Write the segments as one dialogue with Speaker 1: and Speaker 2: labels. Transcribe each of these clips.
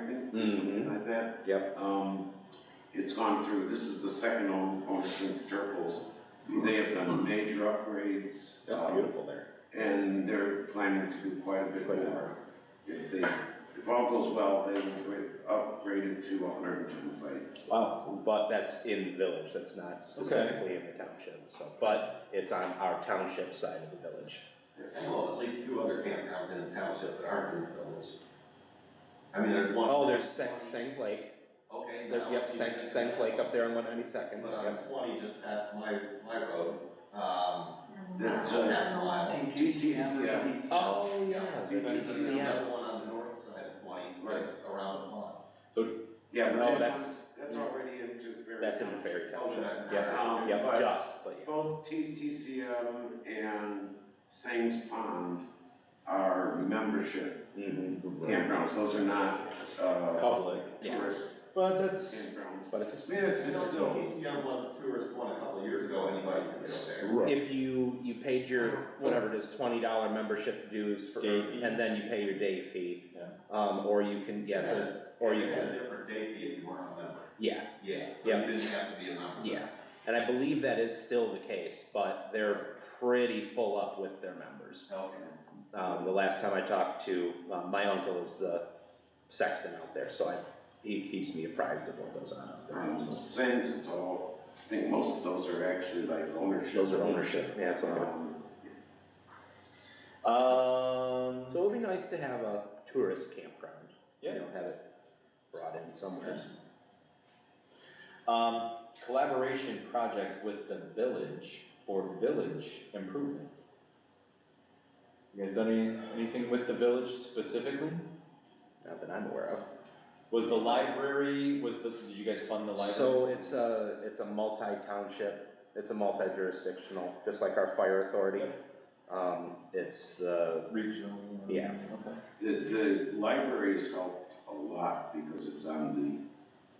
Speaker 1: something like that.
Speaker 2: Yep.
Speaker 1: Um, it's gone through, this is the second home owner since Turples. They have done major upgrades.
Speaker 2: That's
Speaker 1: um,
Speaker 2: beautiful there.
Speaker 1: And they're planning to do quite a bit
Speaker 2: Quite a bit.
Speaker 1: more. If they, if all goes well, they will gra- upgrade it to hundred and ten sites.
Speaker 2: Wow. But that's in the village, that's not specifically in the township, so, but it's on our township side of the village.
Speaker 3: Well, at least two other campgrounds in the township that aren't in the village. I mean, there's one.
Speaker 2: Oh, there's Seng, Seng's Lake,
Speaker 3: Okay.
Speaker 2: there,
Speaker 3: now
Speaker 2: yep,
Speaker 3: it's
Speaker 2: Seng,
Speaker 3: even-
Speaker 2: Seng's Lake up there on one ninety-second,
Speaker 3: But uh, on
Speaker 2: yep.
Speaker 3: twenty, just past my, my road, um.
Speaker 1: That's,
Speaker 3: I don't
Speaker 1: uh,
Speaker 3: have no idea.
Speaker 1: TTCM.
Speaker 2: Oh, yeah.
Speaker 1: Did you
Speaker 3: There's
Speaker 1: see
Speaker 2: yeah.
Speaker 3: another one on the north side of twenty, that's around the pond.
Speaker 1: Yeah,
Speaker 2: No,
Speaker 1: but that
Speaker 2: that's-
Speaker 1: one, that's already into the very.
Speaker 2: That's in the fairy township,
Speaker 3: Okay.
Speaker 2: yep,
Speaker 1: Um,
Speaker 2: yep,
Speaker 1: but-
Speaker 2: just, but yeah.
Speaker 1: Both TTCM and Sangs Pond are membership Mm-hmm. campgrounds, those are not, uh,
Speaker 2: Public, yeah,
Speaker 1: tourist
Speaker 4: But that's,
Speaker 1: campgrounds.
Speaker 2: but it's a.
Speaker 1: Yeah, it's
Speaker 3: You know,
Speaker 1: Um, it's still,
Speaker 3: TTCM was a tourist one a couple of years ago, anybody could go there.
Speaker 2: If you, you paid your, whatever it is, twenty dollar membership dues for,
Speaker 4: Day fee.
Speaker 2: and then you pay your day fee.
Speaker 4: Yeah.
Speaker 2: Um, or you can, yeah, it's a, or you
Speaker 3: They had a
Speaker 2: can,
Speaker 3: different day fee if you weren't a member,
Speaker 2: yeah,
Speaker 3: yeah, so
Speaker 2: Yeah.
Speaker 3: you didn't have to be a member.
Speaker 2: yeah. And I believe that is still the case, but they're pretty full up with their members.
Speaker 3: Okay.
Speaker 2: Um, the last time I talked to, um, my uncle is the sexton out there, so I, he keeps me apprised of what goes on out there.
Speaker 1: um, Sands is all, I think most of those are actually like ownership.
Speaker 2: Those are ownership, yeah, that's what I'm.
Speaker 1: Um,
Speaker 4: um,
Speaker 2: So it would be nice to have a tourist campground.
Speaker 4: Yeah.
Speaker 2: You know, have it brought in somewhere.
Speaker 4: um, collaboration projects with the village for village improvement. You guys done any, anything with the village specifically?
Speaker 2: Not that I'm aware of.
Speaker 4: Was the library, was the, did you guys fund the library?
Speaker 2: So it's a, it's a multi-township, it's a multi-jurisdictional, just like our fire authority. Um, it's the,
Speaker 4: Regional.
Speaker 2: Yeah.
Speaker 4: Okay.
Speaker 1: The, the library's helped a lot because it's on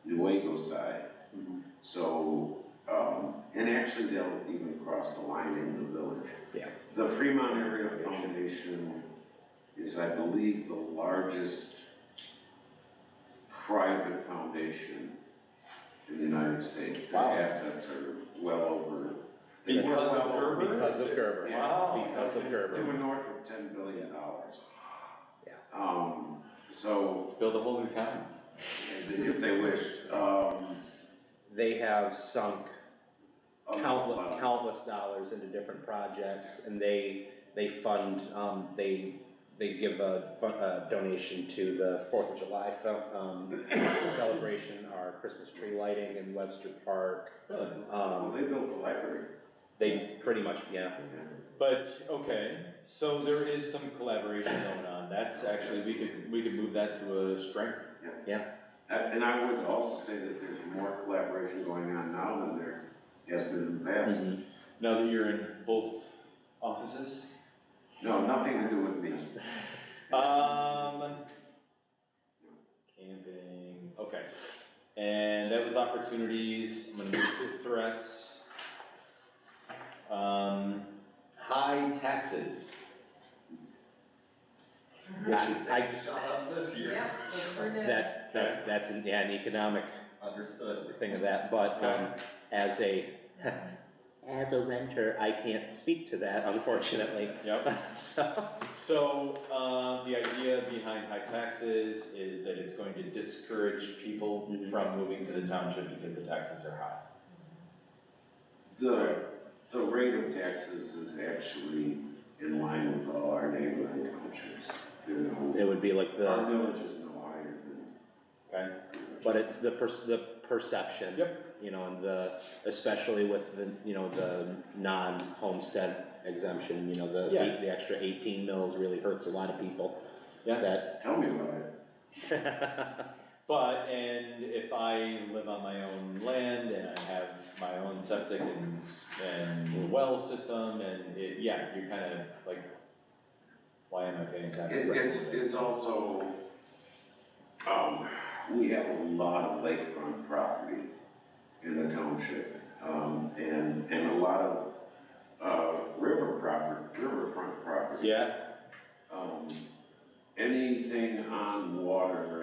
Speaker 1: the Nuevo side.
Speaker 2: Mhm.
Speaker 1: So, um, and actually they'll even cross the line in the village.
Speaker 2: Yeah.
Speaker 1: The Fremont Area Foundation is, I believe, the largest private foundation in the United States. Their
Speaker 4: Wow.
Speaker 1: assets are well over. they were
Speaker 4: Because of
Speaker 1: well over-
Speaker 4: Gerber?
Speaker 2: because of Gerber,
Speaker 1: Yeah.
Speaker 4: Wow.
Speaker 2: because of
Speaker 1: They were
Speaker 2: Gerber.
Speaker 1: north of ten billion dollars.
Speaker 2: Yeah.
Speaker 1: Um, so,
Speaker 4: Build a whole new town.
Speaker 1: if they wished, um.
Speaker 2: They have sunk
Speaker 1: a
Speaker 2: countless,
Speaker 1: lot.
Speaker 2: countless dollars into different projects, and they, they fund, um, they, they give a, fu- a donation to the Fourth of July, fel- um, celebration, our Christmas tree lighting in Webster Park.
Speaker 4: Really?
Speaker 1: Well,
Speaker 2: Um,
Speaker 1: they built the library.
Speaker 2: they pretty much, yeah,
Speaker 4: But, okay, so there is some collaboration going on, that's actually, we could, we could move that to a strength.
Speaker 1: And and I would also say that there's more collaboration going on now than there has been in the past.
Speaker 4: Now that you're in both offices.
Speaker 1: No, nothing to do with me.
Speaker 4: Um. Camping, okay, and that was opportunities, I'm gonna move to threats. Um, high taxes.
Speaker 2: I- I-
Speaker 3: They Shot up this year.
Speaker 5: Yeah, we're good.
Speaker 2: that, that, that's an, yeah, an economic
Speaker 3: Understood.
Speaker 2: thing of that, but, um, as a, as a renter, I can't speak to that unfortunately,
Speaker 4: Yep.
Speaker 2: so.
Speaker 4: So, uh, the idea behind high taxes is that it's going to discourage people
Speaker 2: Mhm.
Speaker 4: from moving to the township because the taxes are high.
Speaker 1: The, the rate of taxes is actually in line with all our neighboring townships. You
Speaker 2: It would be like
Speaker 1: know, our
Speaker 2: the,
Speaker 1: village is no higher than.
Speaker 4: Okay.
Speaker 2: but it's the first, the perception.
Speaker 4: Yep.
Speaker 2: You know, and the, especially with the, you know, the non-homestead exemption, you know, the,
Speaker 4: Yeah.
Speaker 2: the extra eighteen mils really hurts a lot of people.
Speaker 4: Yeah.
Speaker 1: Tell me about it.
Speaker 2: That.
Speaker 4: But, and if I live on my own land and I have my own septic and, s- and well system and it, yeah, you're kind of like, why am I paying taxes?
Speaker 1: It- It's, it's also, um, we have a lot of lakefront property in the township, um, and, and a lot of, uh, river proper, riverfront property.
Speaker 4: Yeah,
Speaker 1: Um, anything on water